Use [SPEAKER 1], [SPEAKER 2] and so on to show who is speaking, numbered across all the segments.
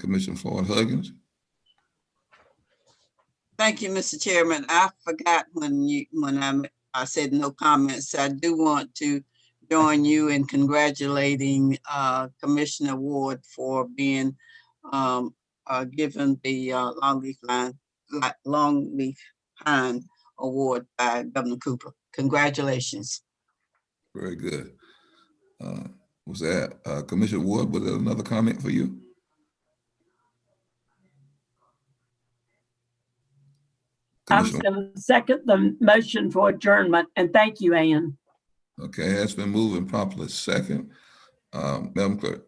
[SPEAKER 1] Commissioner Floyd Huggins.
[SPEAKER 2] Thank you, Mr. Chairman. I forgot when you, when I, I said no comments. I do want to join you in congratulating uh, Commissioner Ward for being um, uh, given the uh, Longleaf Line, Li- Longleaf Pine Award by Governor Cooper. Congratulations.
[SPEAKER 1] Very good. Uh, Was that, uh, Commissioner Ward, was there another comment for you?
[SPEAKER 3] I was
[SPEAKER 1] Commissioner-
[SPEAKER 3] going to second the motion for adjournment, and thank you, Ann.
[SPEAKER 1] Okay, it's been moved and properly second. Um, Madam Clerk,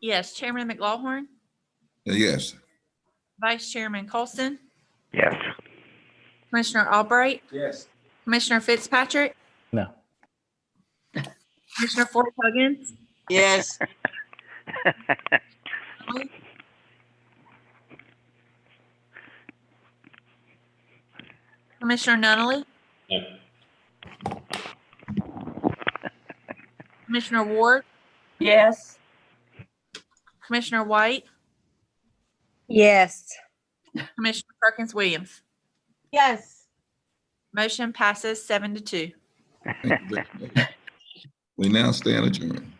[SPEAKER 4] Yes, Chairman McLaughlin,
[SPEAKER 1] yes,
[SPEAKER 4] Vice Chairman Colson,
[SPEAKER 5] Yes.
[SPEAKER 4] Commissioner Albright. Yes. Commissioner Fitzpatrick.
[SPEAKER 6] No.
[SPEAKER 4] Commissioner Floyd Huggins,
[SPEAKER 2] Yes,
[SPEAKER 4] Commissioner Nunley. Commissioner Ward,
[SPEAKER 3] Yes,
[SPEAKER 4] Commissioner White,
[SPEAKER 7] Yes.
[SPEAKER 4] Commissioner Perkins Williams.
[SPEAKER 7] Yes.
[SPEAKER 4] Motion passes seven to two.
[SPEAKER 1] thank you very much. We now stand adjourned.